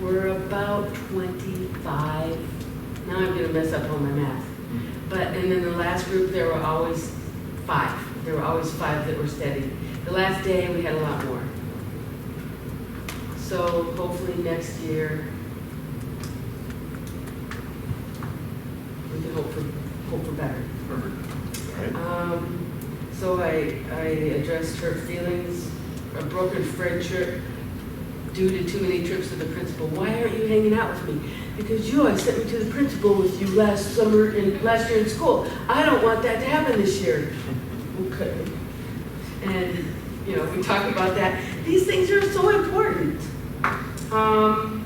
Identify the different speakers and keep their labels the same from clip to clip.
Speaker 1: we're about twenty-five. Now I'm gonna mess up on my math. But, and then the last group, there were always five. There were always five that were steady. The last day, we had a lot more. So hopefully next year, we can hope for, hope for better.
Speaker 2: Perfect. All right.
Speaker 1: Um, so I, I addressed her feelings, a broken friendship due to too many trips to the principal. Why aren't you hanging out with me? Because you, I sent me to the principal with you last summer and last year in school. I don't want that to happen this year. Okay. And, you know, we talk about that. These things are so important. Um,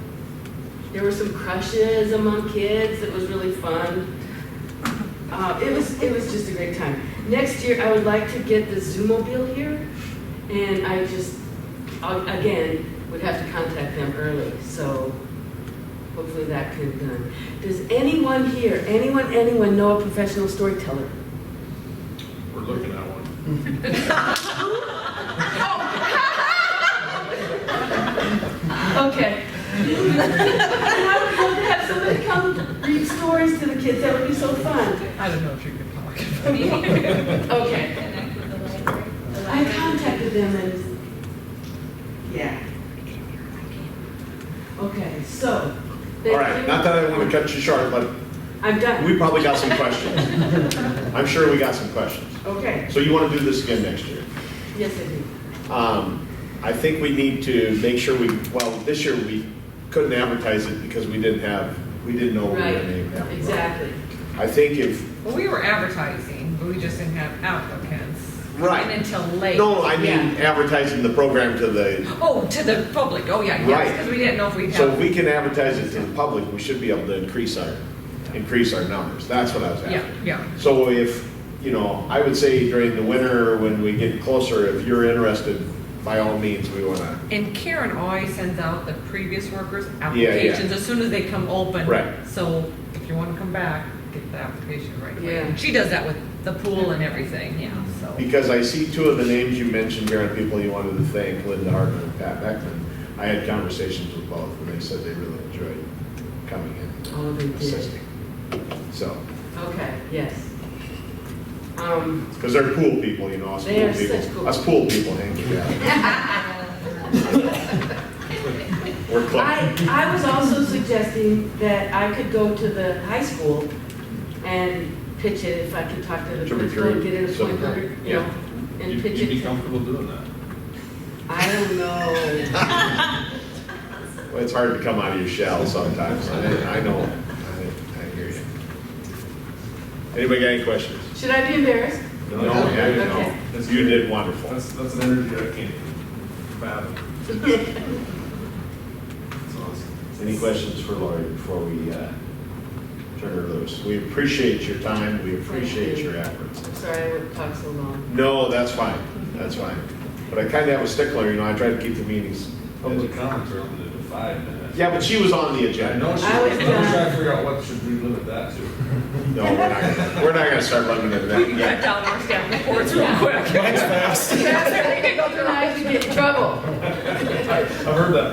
Speaker 1: there were some crushes among kids. It was really fun. Uh, it was, it was just a great time. Next year, I would like to get the Zoomobile here, and I just, uh, again, would have to contact them early, so hopefully that can be done. Does anyone here, anyone, anyone know a professional storyteller?
Speaker 2: We're looking at one.
Speaker 1: Okay. I would love to have somebody come read stories to the kids, that would be so fun.
Speaker 3: I don't know if you can talk.
Speaker 1: Okay.
Speaker 4: Connect with the library. The
Speaker 1: I
Speaker 4: library.
Speaker 1: contacted them and, yeah. Okay, so.
Speaker 2: All right, not that I want to cut you short, but
Speaker 1: I'm done.
Speaker 2: we probably got some questions. I'm sure we got some questions.
Speaker 1: Okay,
Speaker 2: So you want to do this again next year?
Speaker 1: yes, I do.
Speaker 2: Um, I think we need to make sure we, well, this year we couldn't advertise it because we didn't have, we didn't know what we were
Speaker 1: Right,
Speaker 2: going to have.
Speaker 1: exactly.
Speaker 2: I think if,
Speaker 3: Well, we were advertising, but we just didn't have applicants.
Speaker 2: Right.
Speaker 3: And until late.
Speaker 2: no, I mean
Speaker 1: Yeah.
Speaker 2: advertising the program to the,
Speaker 3: Oh, to the public, oh, yeah,
Speaker 2: Right.
Speaker 3: yes, because we didn't know if we'd
Speaker 2: so if
Speaker 3: have.
Speaker 2: we can advertise it to the public, we should be able to increase our, increase our numbers. That's what I was
Speaker 3: Yeah,
Speaker 2: after.
Speaker 3: yeah,
Speaker 2: So if, you know, I would say during the winter, when we get closer, if you're interested, by all means, we want to.
Speaker 3: and Karen always sends out the previous workers'
Speaker 2: yeah.
Speaker 3: applications as soon as they come open.
Speaker 2: Right.
Speaker 3: So if you want to come back, get the application right away.
Speaker 1: Yeah.
Speaker 3: She does that with the pool and everything, yeah, so.
Speaker 2: Because I see two of the names you mentioned here, and people you wanted to thank, Linda Hartman and Pat Beckman. I had conversations with both, and they said they really enjoyed coming in
Speaker 1: Oh, they
Speaker 2: and
Speaker 1: did.
Speaker 2: assisting. So,
Speaker 1: Okay, yes. Um,
Speaker 2: because they're cool people, you know, us
Speaker 1: They
Speaker 2: cool
Speaker 1: are such cool
Speaker 2: people. Us cool people hang together. We're
Speaker 1: I,
Speaker 2: close.
Speaker 1: I was also suggesting that I could go to the high school and pitch it if I could talk to the
Speaker 2: To
Speaker 1: principal and
Speaker 2: recruit
Speaker 1: get it
Speaker 2: some-
Speaker 1: appointed, you
Speaker 2: yeah.
Speaker 1: know, and
Speaker 5: You'd
Speaker 1: pitch
Speaker 5: you'd be
Speaker 1: it.
Speaker 5: comfortable doing that?
Speaker 1: I don't know.
Speaker 2: Well, It's hard to come out of your shell sometimes. I I know. I I hear you. Anybody got any questions?
Speaker 1: Should I be embarrassed?
Speaker 2: No, yeah, you
Speaker 1: Okay.
Speaker 2: know. You did wonderful.
Speaker 5: That's, that's an energy I can't fathom. It's awesome.
Speaker 2: Any questions for Lori before we uh, turn her loose? We appreciate your time, we appreciate your efforts.
Speaker 1: I'm sorry I would talk so long.
Speaker 2: No, that's fine, that's fine. But I kind of have a stickler, you know, I try to keep the meetings.
Speaker 5: Public comments are limited to five minutes.
Speaker 2: Yeah, but she was on the
Speaker 5: I
Speaker 2: agenda.
Speaker 5: know, she-
Speaker 1: I
Speaker 5: I
Speaker 1: was
Speaker 5: was trying
Speaker 1: done.
Speaker 5: to figure out what should we limit that to.
Speaker 2: No, we're not, gonna- we're not gonna start limiting
Speaker 3: We can
Speaker 2: that
Speaker 3: cut
Speaker 2: yet.
Speaker 3: down our staff reports real quick.
Speaker 2: Mine's fast.
Speaker 3: We can go through our-
Speaker 1: I could get in trouble.
Speaker 5: I- I've heard that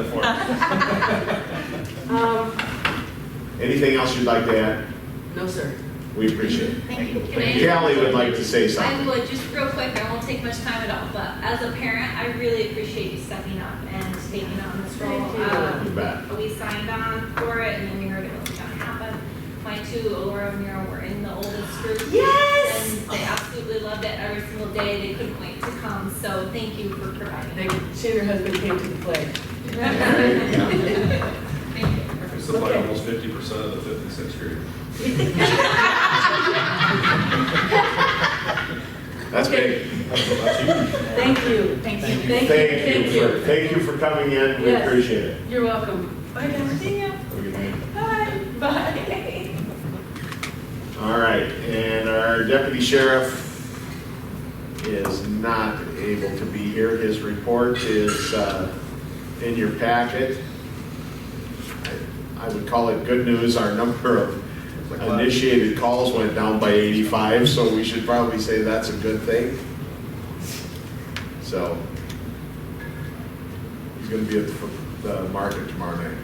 Speaker 5: before.
Speaker 1: Um,
Speaker 2: Anything else you'd like to add?
Speaker 1: no, sir.
Speaker 2: We appreciate it.
Speaker 4: Thank you. Can I-
Speaker 2: Callie would like to say
Speaker 4: I
Speaker 2: something.
Speaker 4: would, just real quick, I won't take much time at all, but as a parent, I really appreciate you stepping up and taking on this role.
Speaker 1: Thank you.
Speaker 4: Um,
Speaker 2: You bet.
Speaker 4: We signed on for it and then we heard it was gonna happen. My two, Laura and Mira, were in the oldest group.
Speaker 1: Yes!
Speaker 4: And they absolutely loved it every single day. They couldn't wait to come, so thank you for providing.
Speaker 1: Thank you. She and her husband came to the play.
Speaker 4: Thank you.
Speaker 5: It's like almost fifty percent of the fifth and sixth grade.
Speaker 2: That's big.
Speaker 5: That's huge.
Speaker 1: Thank you. Thank you. Thank you.
Speaker 2: Thank you, for- thank you for coming in, we
Speaker 1: Yes.
Speaker 2: appreciate it.
Speaker 1: You're welcome. Bye, guys. See ya.
Speaker 2: Have a good night.
Speaker 1: Bye. Bye.
Speaker 2: All right, and our deputy sheriff is not able to be here. His report is uh, in your packet. I- I would call it good news, our number of initiated calls went down by 85, so we should probably say that's a good thing. So, he's gonna be at the f- the market tomorrow night.